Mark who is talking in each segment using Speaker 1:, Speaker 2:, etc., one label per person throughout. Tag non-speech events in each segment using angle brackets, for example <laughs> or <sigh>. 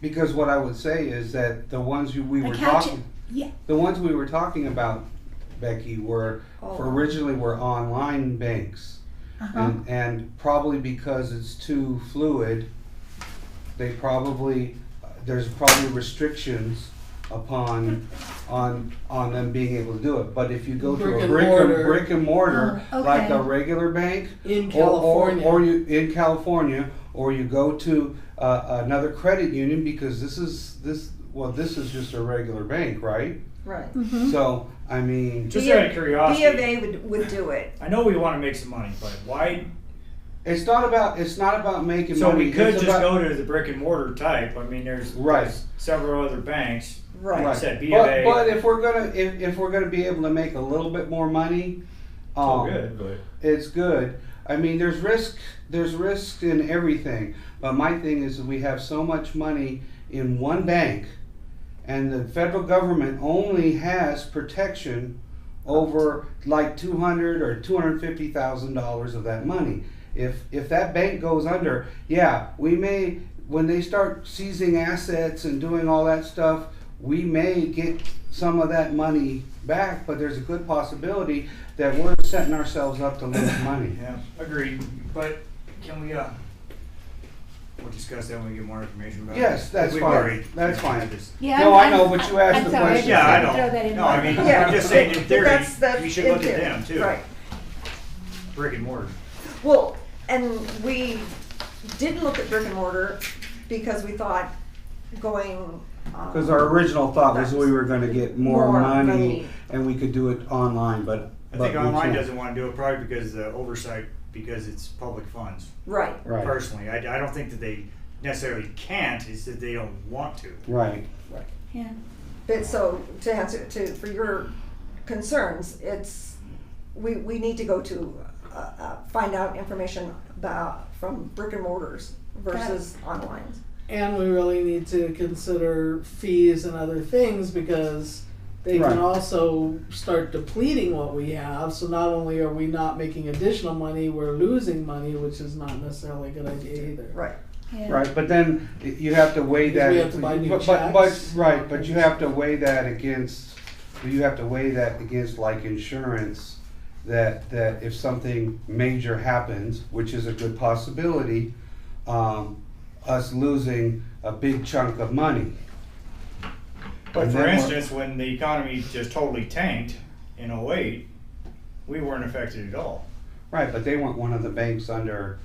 Speaker 1: Because what I would say is that the ones who we
Speaker 2: I
Speaker 1: were
Speaker 2: catch it.
Speaker 1: talking,
Speaker 2: Yeah.
Speaker 1: the ones we were talking about, Becky, were
Speaker 2: Oh.
Speaker 1: originally were online banks,
Speaker 2: Uh-huh.
Speaker 1: and, and probably because it's too fluid, they probably there's probably restrictions upon on on them being able to do it. But if you go
Speaker 3: Brick
Speaker 1: to a
Speaker 3: and
Speaker 1: brick
Speaker 3: mortar.
Speaker 1: and brick and mortar
Speaker 2: Oh,
Speaker 1: like
Speaker 2: okay.
Speaker 1: a regular bank,
Speaker 3: in
Speaker 1: or, or,
Speaker 3: California.
Speaker 1: or you in California, or you go to uh, another credit union because this is this well this is just a regular bank, right?
Speaker 4: Right.
Speaker 5: Mm-hmm.
Speaker 2: Mhm.
Speaker 1: So I mean,
Speaker 6: Just
Speaker 4: B
Speaker 6: out of
Speaker 4: of-
Speaker 6: curiosity,
Speaker 4: B of A would, would do it.
Speaker 6: I know we want to make some money, but why?
Speaker 1: it's not about it's not about making
Speaker 6: So
Speaker 1: money.
Speaker 6: we could
Speaker 1: it's
Speaker 6: just
Speaker 1: about-
Speaker 6: go to the brick and mortar type. I mean, there's,
Speaker 1: Right.
Speaker 6: there's several other banks.
Speaker 4: Right.
Speaker 6: Like I said, B of
Speaker 1: But,
Speaker 6: A.
Speaker 1: but if we're gonna if, if we're gonna be able to make a little bit more money,
Speaker 6: it's all
Speaker 1: um,
Speaker 6: good, but
Speaker 1: it's good. I mean, there's risk. There's risk in everything. But my thing is, that we have so much money in one bank, and the federal government only has protection over like two hundred or two hundred fifty thousand dollars of that money. If if that bank goes under, yeah, we may when they start seizing assets and doing all that stuff, we may get some of that money back. But there's a good possibility that we're setting ourselves up to lose money.
Speaker 6: yeah, agreed. But can we? uh We'll discuss that when we get more information about.
Speaker 1: Yes,
Speaker 6: it.
Speaker 1: that's
Speaker 6: We've
Speaker 1: fine.
Speaker 6: already-
Speaker 1: That's
Speaker 6: yeah,
Speaker 1: fine.
Speaker 6: just-
Speaker 2: Yeah,
Speaker 1: No,
Speaker 2: I'm-
Speaker 1: I know,
Speaker 2: I'm-
Speaker 1: but you asked
Speaker 2: I'm
Speaker 1: the
Speaker 2: sorry,
Speaker 1: question.
Speaker 2: just
Speaker 6: Yeah, I
Speaker 2: wanted to
Speaker 6: know.
Speaker 2: Throw that in.
Speaker 6: No, I
Speaker 2: there.
Speaker 6: mean,
Speaker 4: Yeah.
Speaker 6: I'm just saying in
Speaker 4: But
Speaker 6: theory,
Speaker 4: that's- that's
Speaker 6: we should
Speaker 4: in
Speaker 6: look at
Speaker 4: theory.
Speaker 6: them too.
Speaker 4: Right.
Speaker 6: Brick and mortar.
Speaker 4: Well, and we didn't look at brick and mortar because we thought going. um,
Speaker 1: Because our original thought was we were going to get more,
Speaker 4: More
Speaker 1: money,
Speaker 4: money.
Speaker 1: and we could do it online, but but
Speaker 6: I think
Speaker 1: we
Speaker 6: online
Speaker 1: can't.
Speaker 6: doesn't want to do it probably because of the oversight because it's public funds.
Speaker 4: Right.
Speaker 1: Right.
Speaker 6: Personally, I, I don't think that they necessarily can't. It's that they don't want to.
Speaker 1: Right.
Speaker 2: Yeah.
Speaker 4: But so to answer to for your concerns, it's we we need to go to uh, uh, find out information about from brick and mortars versus online.
Speaker 3: and we really need to consider fees and other things because they
Speaker 1: Right.
Speaker 3: can also start depleting what we have. So not only are we not making additional money, we're losing money, which is not necessarily a good idea either.
Speaker 4: Right.
Speaker 2: Yeah.
Speaker 1: Right, but then you have to weigh that.
Speaker 3: Because we have to buy new
Speaker 1: but, but, but
Speaker 3: checks.
Speaker 1: right, but you have to weigh that against. You have to weigh that against like insurance. That that if something major happens, which is a good possibility, um, us losing a big chunk of money.
Speaker 6: But
Speaker 1: And
Speaker 6: for
Speaker 1: then we're-
Speaker 6: instance, when the economy just totally tanked in 08, we weren't affected at all.
Speaker 1: Right, but they weren't one of the banks under.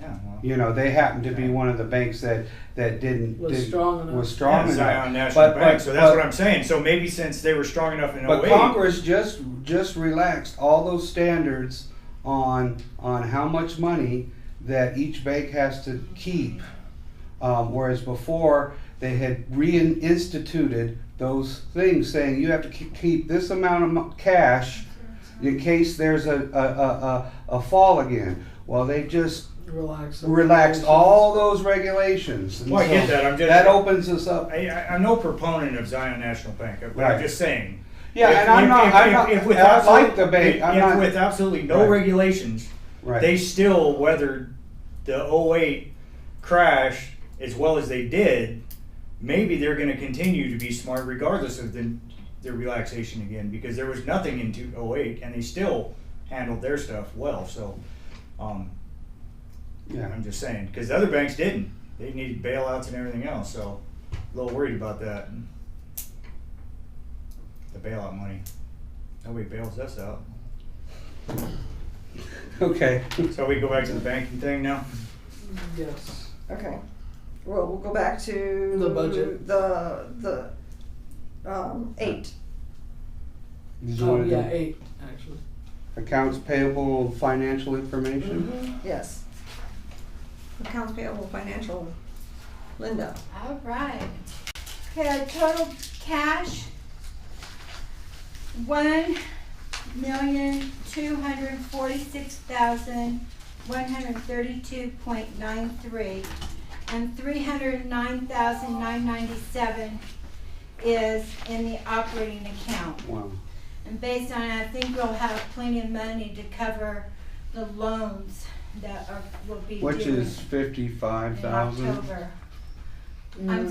Speaker 6: Yeah, well,
Speaker 1: You know, they happened to be one of the banks that that didn't
Speaker 3: Was
Speaker 1: did-
Speaker 3: strong enough.
Speaker 1: Was
Speaker 6: yeah,
Speaker 1: strong enough.
Speaker 6: Zion National
Speaker 1: But-
Speaker 6: Bank.
Speaker 1: but-
Speaker 6: so that's
Speaker 1: but-
Speaker 6: what I'm saying. So maybe since they were strong enough in
Speaker 1: But
Speaker 6: 08,
Speaker 1: Congress just just relaxed all those standards on on how much money that each bank has to keep, um, whereas before they had reinstituted those things, saying you have to ke- keep this amount of mo- cash in case there's a a, a, a, a fall again. Well, they just
Speaker 3: Relax.
Speaker 1: relaxed all those regulations. and
Speaker 6: Well, Oh, I get
Speaker 1: so
Speaker 6: that. I'm just-
Speaker 1: that opens us up.
Speaker 6: I, I, I'm no proponent of Zion National Bank, but
Speaker 1: Right.
Speaker 6: I'm just saying.
Speaker 1: Yeah,
Speaker 6: if-
Speaker 1: and I'm
Speaker 6: if-
Speaker 1: not.
Speaker 6: if-
Speaker 1: I'm
Speaker 6: if-
Speaker 1: not.
Speaker 6: if with
Speaker 1: I like
Speaker 6: absolute-
Speaker 1: the bank.
Speaker 6: If,
Speaker 1: I'm
Speaker 6: if
Speaker 1: not.
Speaker 6: with absolutely no
Speaker 1: Right.
Speaker 6: regulations,
Speaker 1: right.
Speaker 6: they still weathered the 08 crash as well as they did. Maybe they're going to continue to be smart regardless of the, their relaxation again because there was nothing in 08 and they still handled their stuff well. So um,
Speaker 1: yeah. <laughs>
Speaker 6: I'm just saying because the other banks didn't. They needed bailouts and everything else. So a little worried about that. The bailout money. Nobody bails us out.
Speaker 1: Okay.
Speaker 6: So we go back to the banking thing now?
Speaker 3: Yes.
Speaker 4: Okay. Well, we'll go back to
Speaker 3: The budget.
Speaker 4: The the um, eight.
Speaker 1: Did you
Speaker 3: Oh
Speaker 1: want to
Speaker 3: yeah,
Speaker 1: do
Speaker 3: eight actually.
Speaker 1: accounts payable financial information?
Speaker 4: Yes. Accounts payable, financial. Linda.
Speaker 5: All right. Okay, our total cash, one million, two hundred forty-six thousand, one hundred thirty-two point nine three, and three hundred nine thousand, nine ninety-seven is in the operating account.
Speaker 1: Wow.
Speaker 5: And based on, it, I think we'll have plenty of money to cover the loans that are, will be due
Speaker 1: Which is
Speaker 5: in
Speaker 1: fifty-five thousand?
Speaker 3: Mm-hmm.
Speaker 5: October. I'm